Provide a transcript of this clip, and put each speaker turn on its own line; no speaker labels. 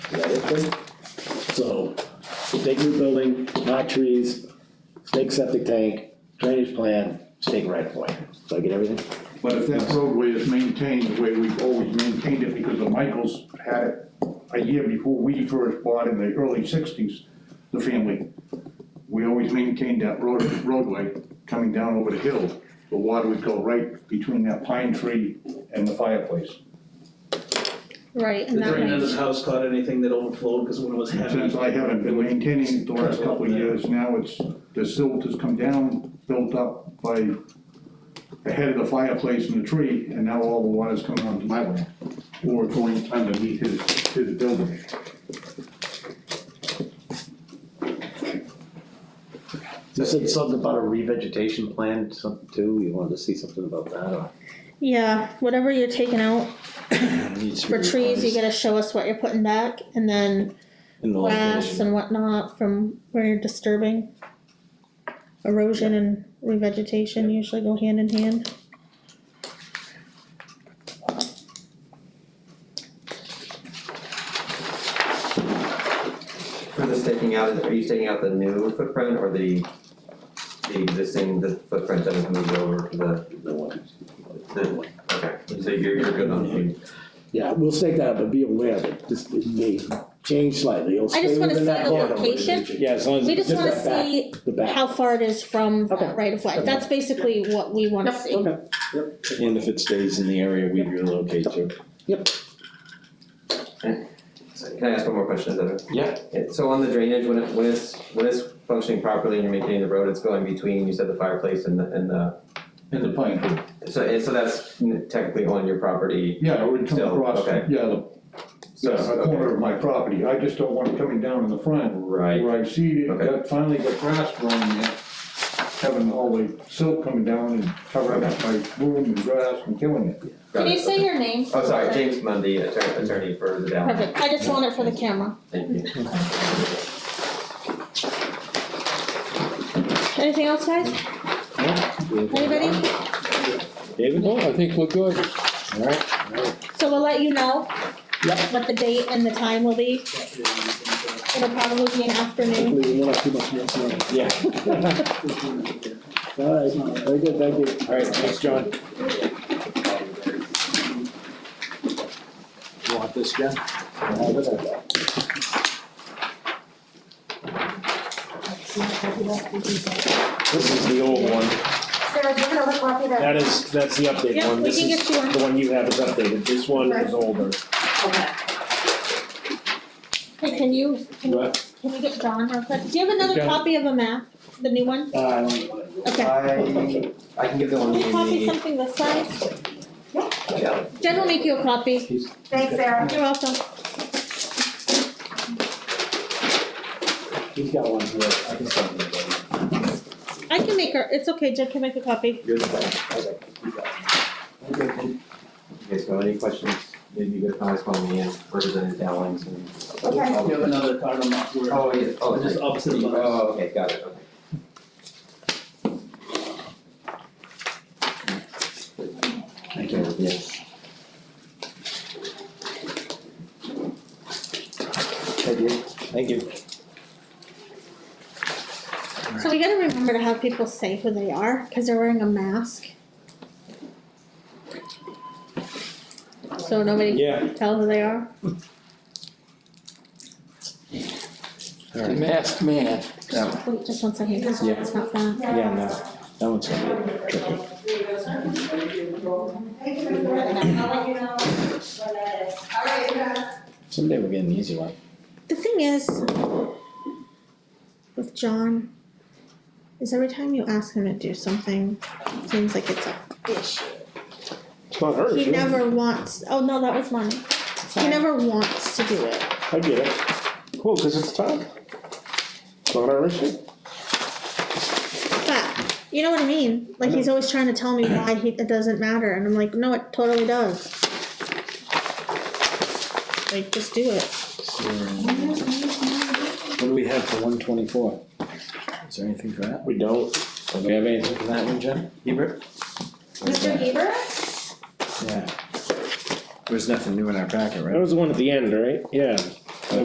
Is that it then? So, stake new building, not trees, stake septic tank, drainage plan, stake right of way. Did I get everything?
But if that roadway is maintained the way we've always maintained it, because the Michaels had it a year before we first bought in the early sixties, the family, we always maintained that road, roadway coming down over the hill. The water would go right between that pine tree and the fireplace.
Right, and
Has
that
anyone in this
might,
house caught anything that overflowed because one was
Since
heavy?
I haven't been maintaining it the last couple of years, now it's, the silt has come down, built up by the head of the fireplace and the tree, and now all the water's coming onto my land, or going underneath his, his building.
You said something about a revegetation plan, something too, you wanted to see something about that, or?
yeah, whatever you're taking out for trees, you gotta show us what you're putting back, and then
In the
grass
location.
and whatnot from where you're disturbing. Erosion and revegetation usually go hand in hand.
For this taking out, are you taking out the new footprint or the, the existing, the footprint that was moved over to the,
No one.
the, okay, so you're, you're good on.
Yeah, we'll stake that, out, but be aware that this, it may change slightly, it'll
I
stay
just wanna
within
see
that
the
corridor.
location.
Yeah, as long as.
We just
Just
wanna
that back.
see
The back.
how far it is from
Okay.
that right of way, that's basically what we wanna see.
Okay.
And if it stays in the area we relocate to.
So Can I ask one more question, is that it?
Yeah.
So on the drainage, when it, when it's, when it's functioning properly and you're maintaining the road, it's going between, you said the fireplace and the, and the,
And the pine tree.
so, and so that's technically on your property,
Yeah, it would come
Still,
across,
okay.
yeah, the,
so,
yeah, the corner
okay,
of my property, I just don't want it coming down in the front.
right,
Where I see it,
Okay.
got, finally got grass growing in, it, having all the silt coming down and covering up my room and grass and killing it.
got
Can you
it,
say
okay.
your name?
Oh, sorry, James Mundy, attorney, attorney for the down,
Perfect, I just want it for the camera.
thank you.
Anything else, guys? Anybody?
David?
No, I think we're good.
So we'll let you know
Yep.
what the date and the time will be. It'll probably be an afternoon.
Hopefully we won't have too much more snow.
Yeah.
Alright, very good, thank you.
Alright, thanks, John. You want this, Jen? This is the old one,
Sarah, do you have another copy that?
that is, that's the updated
Yeah,
one,
we
this
can
is,
get you one.
the one you have is updated, this one is older.
Okay.
Hey, can you, can you, can you get John real quick? Do you have another
John.
copy of a map, the new one?
Uh, I don't want to-
Okay.
I, I can give the one
Can
to
you copy
the,
something this size?
yeah,
Jen will make you a copy.
Thanks, Sarah.
You're welcome.
He's got one here, I can send him one.
I can make her, it's okay, Jen can make a copy.
You're the best. Okay, you got it.
Okay, so any questions, maybe you guys can always call me in, representative Dowlings and.
Okay.
You have another card on that, where-
Oh, yeah, oh,
Just
sorry.
opposite of us.
Oh, okay, got it, okay. Thank you. Yes. Thank you.
Thank you.
So we gotta remember to have people say who they are, cause they're wearing a mask. So nobody
Yeah.
can tell who they are.
The masked man.
Wait, Oh, just one second, it's
Yeah.
it's not that.
Yeah, no, that one's gonna be tricky. Someday we'll get an easy one.
The thing is, with John, is every time you ask him to do something, it seems like it's a issue.
It's not her,
He never wants, oh no, that was mine. He never wants to do it.
I get it. Cool, cause it's time. It's not our issue.
But, you know what I mean? Like, he's always trying to tell me why he, it doesn't matter, and I'm like, no, it totally does. Like, just do it.
What do we have for one twenty-four? Is there anything for that? We don't. Do we have anything for that one, Jen? Hebert?
Mr. Heber?
Yeah. There's nothing new in our packet, right? That was the one at the end, right? Yeah.